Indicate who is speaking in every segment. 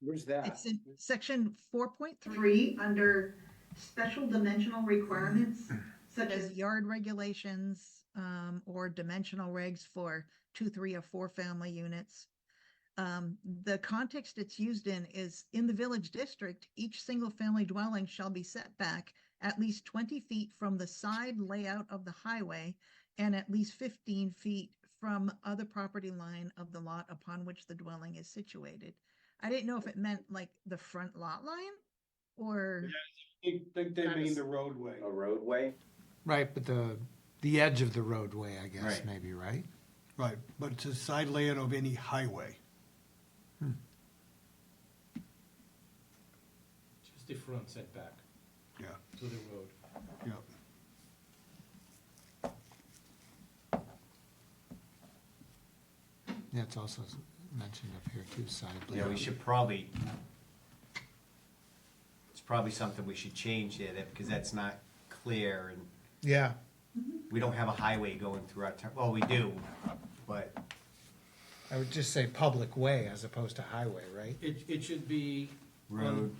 Speaker 1: Where's that?
Speaker 2: It's in section four point three,
Speaker 3: under special dimensional requirements such
Speaker 2: as yard regulations, um, or dimensional regs for two, three, or four family units. Um, the context it's used in is in the village district, each single family dwelling shall be set back at least twenty feet from the side layout of the highway and at least fifteen feet from other property line of the lot upon which the dwelling is situated. I didn't know if it meant like the front lot line or.
Speaker 1: I think they
Speaker 4: That
Speaker 1: mean
Speaker 4: is-
Speaker 1: the roadway.
Speaker 5: A roadway?
Speaker 6: Right, but the, the edge of the roadway, I guess,
Speaker 5: Right.
Speaker 6: maybe, right?
Speaker 7: Right, but it's a side layout of any highway.
Speaker 8: Just the front setback
Speaker 7: Yeah,
Speaker 8: to the road.
Speaker 7: yeah.
Speaker 6: Yeah, it's also mentioned up here too, side
Speaker 9: Yeah, we
Speaker 6: layout.
Speaker 9: should probably, it's probably something we should change there, that- because that's not clear, and
Speaker 6: Yeah,
Speaker 9: we don't have a highway going through our town, well, we do, but
Speaker 6: I would just say public way as opposed to highway, right?
Speaker 8: It, it should be
Speaker 9: road,
Speaker 6: Um,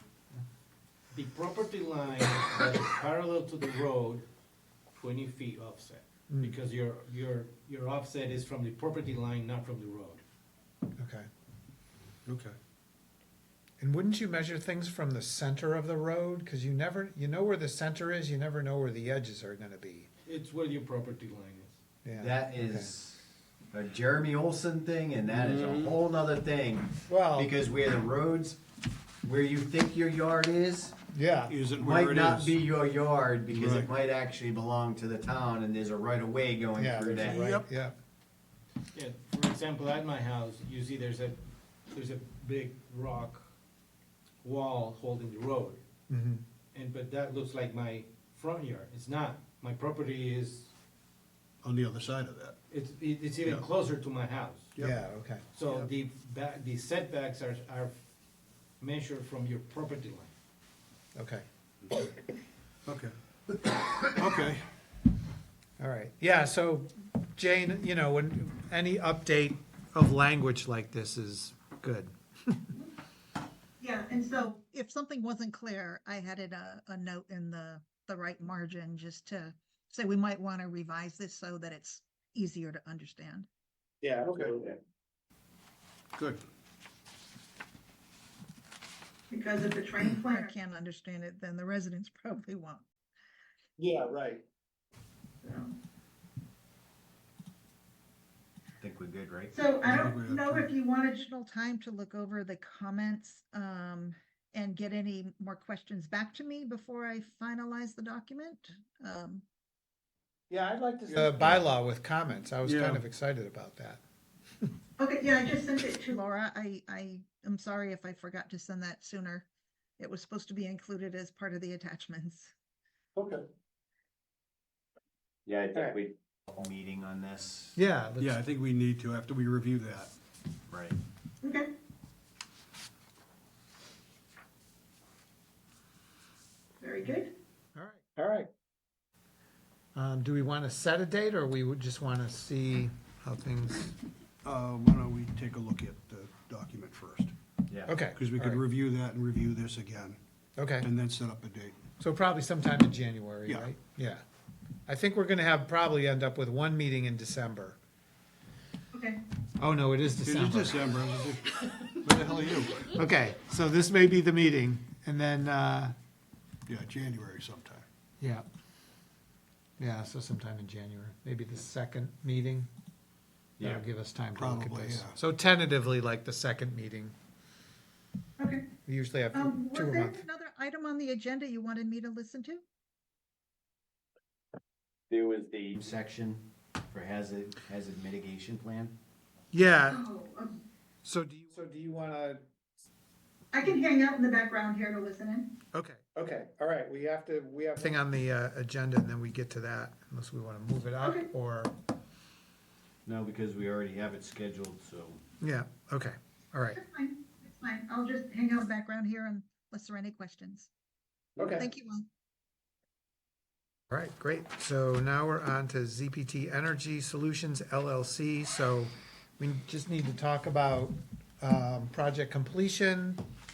Speaker 8: the property line that is parallel to the road, twenty feet offset. Because your, your, your offset is from the property line, not from the road.
Speaker 6: Okay.
Speaker 7: Okay.
Speaker 6: And wouldn't you measure things from the center of the road? Because you never, you know where the center is, you never know where the edges are gonna be.
Speaker 8: It's where your property line is.
Speaker 6: Yeah,
Speaker 9: that
Speaker 6: okay.
Speaker 9: is a Jeremy Olson thing, and that is a whole nother thing.
Speaker 6: Mm-hmm. Well-
Speaker 9: Because where the roads, where you think your yard is,
Speaker 6: Yeah,
Speaker 7: Is it where
Speaker 9: might
Speaker 7: it
Speaker 9: not be
Speaker 7: is?
Speaker 9: your yard, because
Speaker 7: Right.
Speaker 9: it might actually belong to the town, and there's a right of way going
Speaker 6: yeah,
Speaker 9: through that.
Speaker 6: that's right,
Speaker 7: Yep.
Speaker 6: yeah.
Speaker 8: Yeah, for example, at my house, you see there's a, there's a big rock wall holding the road.
Speaker 6: Mm-hmm.
Speaker 8: And, but that looks like my front yard. It's not. My property is,
Speaker 7: On the other side of that.
Speaker 8: it's, it's even
Speaker 7: Yeah.
Speaker 8: closer to my house.
Speaker 6: Yeah, okay.
Speaker 8: So the back, the setbacks are, are measured from your property line.
Speaker 6: Okay.
Speaker 7: Okay. Okay,
Speaker 6: All right. Yeah, so Jane, you know, when any update of language like this is good.
Speaker 3: Yeah, and so,
Speaker 2: if something wasn't clear, I added a, a note in the, the right margin just to say we might want to revise this so that it's easier to understand.
Speaker 1: Yeah,
Speaker 7: Okay.
Speaker 1: absolutely.
Speaker 7: good.
Speaker 3: because if the train
Speaker 2: If I
Speaker 3: plan,
Speaker 2: can't understand it, then the residents probably won't.
Speaker 1: Yeah, right.
Speaker 9: I think we're good, right?
Speaker 3: so
Speaker 7: Yeah,
Speaker 3: I don't
Speaker 7: we
Speaker 3: know
Speaker 7: have to-
Speaker 3: if you wanted to
Speaker 2: Additional time to look over the comments, um, and get any more questions back to me before I finalize the document. Um,
Speaker 1: Yeah, I'd like to. see-
Speaker 6: The bylaw with comments, I was
Speaker 7: Yeah.
Speaker 6: kind of excited about that.
Speaker 3: Okay, yeah, I just sent it to,
Speaker 2: Laura, I, I am sorry if I forgot to send that sooner. It was supposed to be included as part of the attachments.
Speaker 1: Okay.
Speaker 5: Yeah, I
Speaker 1: Alright.
Speaker 5: think we,
Speaker 9: Meeting on this,
Speaker 6: Yeah. let's-
Speaker 7: Yeah, I think we need to after we review that.
Speaker 9: right?
Speaker 3: okay, very good.
Speaker 6: All right.
Speaker 1: All right.
Speaker 6: Um, do we want to set a date or we would just want to see how things?
Speaker 7: Uh, why don't we take a look at the document first?
Speaker 9: Yeah.
Speaker 6: Okay.
Speaker 7: Because we
Speaker 6: all
Speaker 7: could
Speaker 6: right.
Speaker 7: review that and review this again,
Speaker 6: Okay.
Speaker 7: and then set up a date.
Speaker 6: So probably sometime in January,
Speaker 7: Yeah.
Speaker 6: right? Yeah. I think we're going to have, probably end up with one meeting in December.
Speaker 3: Okay,
Speaker 6: Oh, no, it is
Speaker 7: It is
Speaker 6: December.
Speaker 7: December, I was like, where the hell are you?
Speaker 6: Okay, so this may be the meeting and then, uh,
Speaker 7: Yeah, January sometime.
Speaker 6: yeah. Yeah, so sometime in January, maybe the second meeting. That'll
Speaker 9: Yeah.
Speaker 6: give us time to look at
Speaker 7: Probably,
Speaker 6: this.
Speaker 7: yeah.
Speaker 6: So tentatively, like the second meeting.
Speaker 3: okay.
Speaker 6: We usually have
Speaker 3: Um,
Speaker 6: two
Speaker 3: was
Speaker 6: a
Speaker 3: there
Speaker 6: month.
Speaker 2: Another item on the agenda you wanted me to listen to?
Speaker 5: there was the,
Speaker 9: Section for hazard, hazard mitigation plan.
Speaker 6: Yeah,
Speaker 3: Oh, um,
Speaker 6: so do you,
Speaker 1: So do you wanna,
Speaker 3: I can hang out in the background here to listen in.
Speaker 6: okay.
Speaker 1: okay, all right, we have to, we have.
Speaker 6: Thing on the uh, agenda and then we get to that unless we want to move it up
Speaker 3: Okay.
Speaker 6: or,
Speaker 9: No, because we already have it scheduled, so.
Speaker 6: yeah, okay, all right.
Speaker 3: That's fine, that's fine, I'll just hang out
Speaker 2: no background here unless there are any questions.
Speaker 1: Okay.
Speaker 2: Thank you all.
Speaker 6: All right, great. So now we're on to ZPT Energy Solutions LLC. So we just need to talk about um, project completion,